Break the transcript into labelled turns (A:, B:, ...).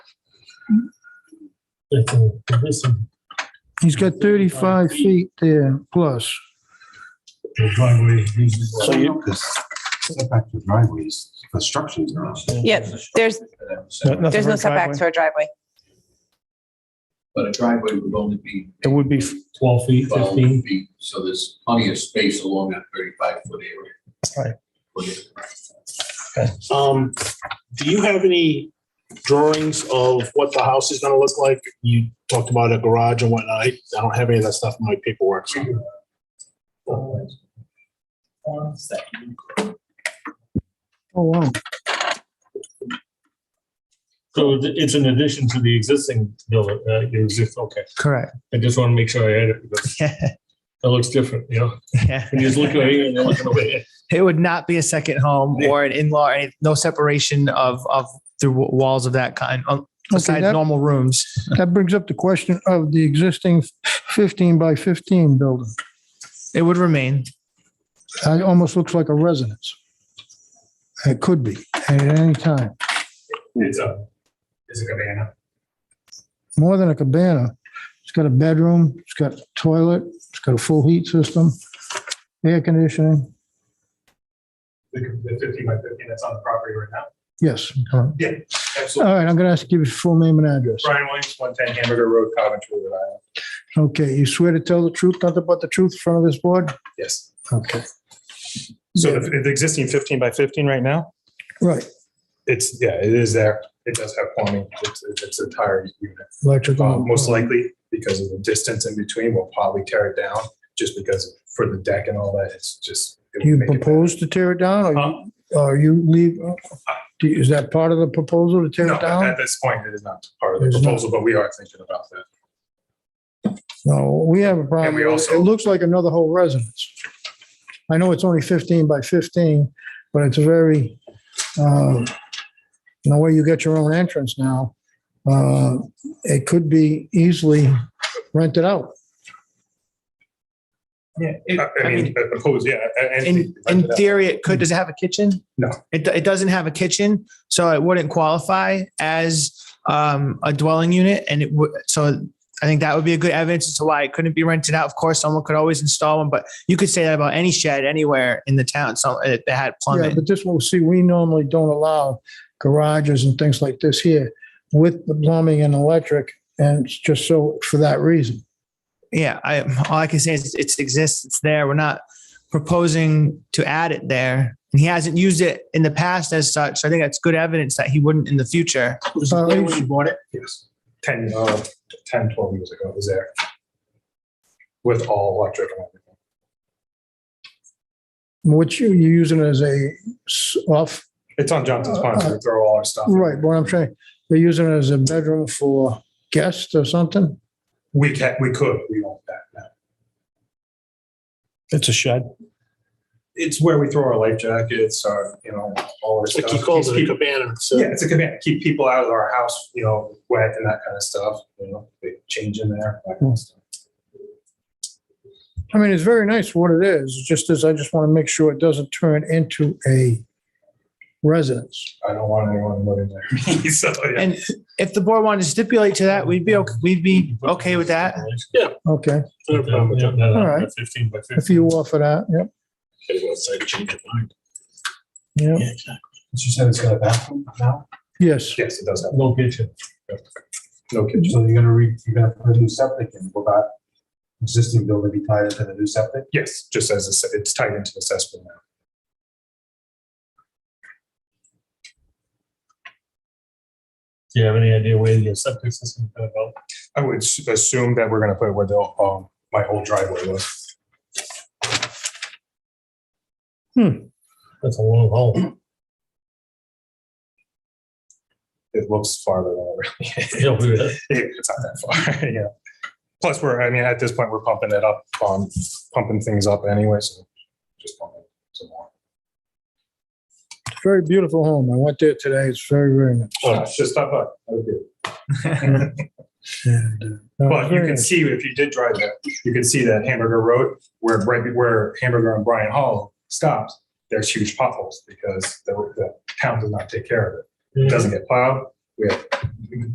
A: That's a condition.
B: He's got 35 feet there plus.
A: The driveway is usually-
C: So you,
D: Setback to driveways, constructions are.
E: Yeah, there's, there's no setbacks for a driveway.
F: But a driveway would only be
C: it would be, f-
A: Twelve feet,
F: twelve
A: fifteen.
F: feet, so there's plenty of space along that thirty-five foot area.
C: Right.
G: Um, do you have any drawings of what the house is gonna look like? You talked about a garage and whatnot. I I don't have any of that stuff in my paperwork. so-
B: Oh, wow.
A: So it- it's an addition to the existing building, uh, your exist, okay.
C: correct.
A: I just want to make sure I had it because it looks different, you know? When you just look over here and you're looking over here.
H: It would not be a second home or an in-law, or any- no separation of, of the wa- walls of that kind, uh, besides
B: that-
H: normal rooms.
B: That brings up the question of the existing 15 by 15 building.
H: It would remain.
B: It almost looks like a residence. It could be at any time,
A: It's
G: uh,
A: a, it's a cabana.
B: more than a cabana. It's got a bedroom, it's got a toilet, it's got a full heat system, air conditioning.
A: The fifteen by fifteen that's on the property right now.
B: Yes. All
A: Absolutely.
B: right, I'm going to ask you to give your full name and address.
A: Brian Williams, one ten Hamburger Road, Coventry, Rhode Island.
B: Okay, you swear to tell the truth, nothing but the truth in front of this board?
G: Yes.
B: Okay,
G: So the, the existing fifteen by fifteen right now,
B: right,
G: it's, yeah, it is there. It does have plumbing. It's, it's a tire unit. Uh,
B: electrical.
G: most likely because of the distance in between, we'll probably tear it down just because for the deck and all that, it's just. it would
B: You
G: make it better.
B: propose to tear it down or-
G: Um,
B: or you leave? do- Is that part of the proposal to tear
G: No,
B: it down?
G: at this point, it is not part of the
B: It's not.
G: proposal, but we are thinking about that.
B: No, we have a problem.
G: And we
B: with it.
G: also-
B: It looks like another whole residence. I know it's only 15 by 15, but it's a very, um, in a way, you get your own entrance now. Uh, It could be easily rented out.
G: I- I
H: I
G: mean,
H: mean-
G: opposed, yeah. a- a-
H: In,
G: anything like
H: in
G: that.
H: theory, it could, does it have a kitchen?
G: No.
H: It, it doesn't have a kitchen, so it wouldn't qualify as, um, a dwelling unit and it would, so I think that would be a good evidence as to why it couldn't be rented out. Of course, someone could always install one, but you could say that about any shed anywhere in the town, so it that had
B: Yeah,
H: plumbing.
B: but this will see, we normally don't allow garages and things like this here with the plumbing and electric. And it's just so for that reason.
H: Yeah, I, all I can say is it's- it exists, it's there. We're not proposing to add it there. And he hasn't used it in the past as such. So I think that's good evidence that he wouldn't in the future.
B: Uh, it's-
H: bought it?
G: Yes, 10, uh, 10, 12 years ago, it was there. With all electric and everything.
B: Which you, you use it as a s- off,
G: It's on Johnson's Pond, so we throw all our stuff. in.
B: right, what I'm saying, they're using it as a bedroom for guests or something?
G: We can, we could, we own that now.
C: It's a shed.
G: It's where we throw our life jackets, our, you know, all our stuff. Uh, Keep-
A: cabana, so.
G: Yeah, it's a command, keep people out of our house, you know, wet and that kind of stuff, you know, they change in there. that kind of stuff.
B: I mean, it's very nice for what it is, It's just as I just want to make sure it doesn't turn into a residence.
G: I don't want anyone living there. So, yeah.
H: And if the board wanted to stipulate to that, we'd be, okay. we'd be okay with that.
B: Okay, All right.
A: Fifteen by fifteen.
B: if you offer that, yep, yep,
D: You said it's got a bathroom now?
B: yes.
G: Yes, it does have,
A: No kitchen.
G: no kitchen.
D: So you're gonna re, you're gonna put a new septic in, will that existing building be tied into the new septic?
G: Yes, just as it's- it's tied into the cesspool now.
A: Do you have any idea where your septic system is gonna go?
G: I would s- assume that we're gonna put it where the, um, my old driveway was.
A: That's a long haul.
G: It looks farther than it really is.
A: Yeah, we would-
G: It- It's not that far, yeah. Plus, we're, I mean, at this point, we're pumping it up, um, pumping things up anyway, so just pump it some more.
B: Very beautiful home. I went there today. It's very, very nice.
G: Uh, Just stop by. That would be-
B: And, uh,
G: But
B: very
G: you can
B: nice.
G: see, if you did drive there, you can see that Hamburger Road, where, right where Hamburger and Bryan Hall stops, there's huge potholes because the, the town does not take care of it. It doesn't get plowed. We have